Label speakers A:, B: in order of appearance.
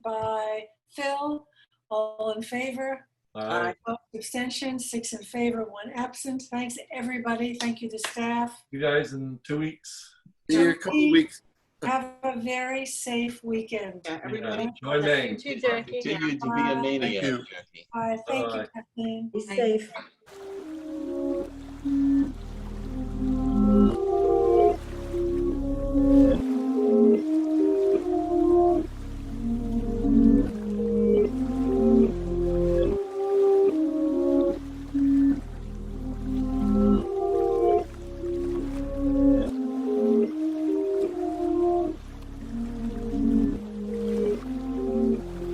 A: Phil, all in favor?
B: Aye.
A: Opposed, Abstentions, six in favor, one absent. Thanks, everybody. Thank you to staff.
B: You guys in two weeks.
C: See you in a couple
A: Jackie.
C: weeks.
A: Have a very safe weekend.
D: Yeah, everybody.
B: Enjoy Maine.
D: Continue to be
A: Bye.
D: a maniac,
C: you.
D: Jackie.
A: Bye. Thank you,
B: Bye.
A: Kathleen.
E: Be
A: Thank-
E: safe.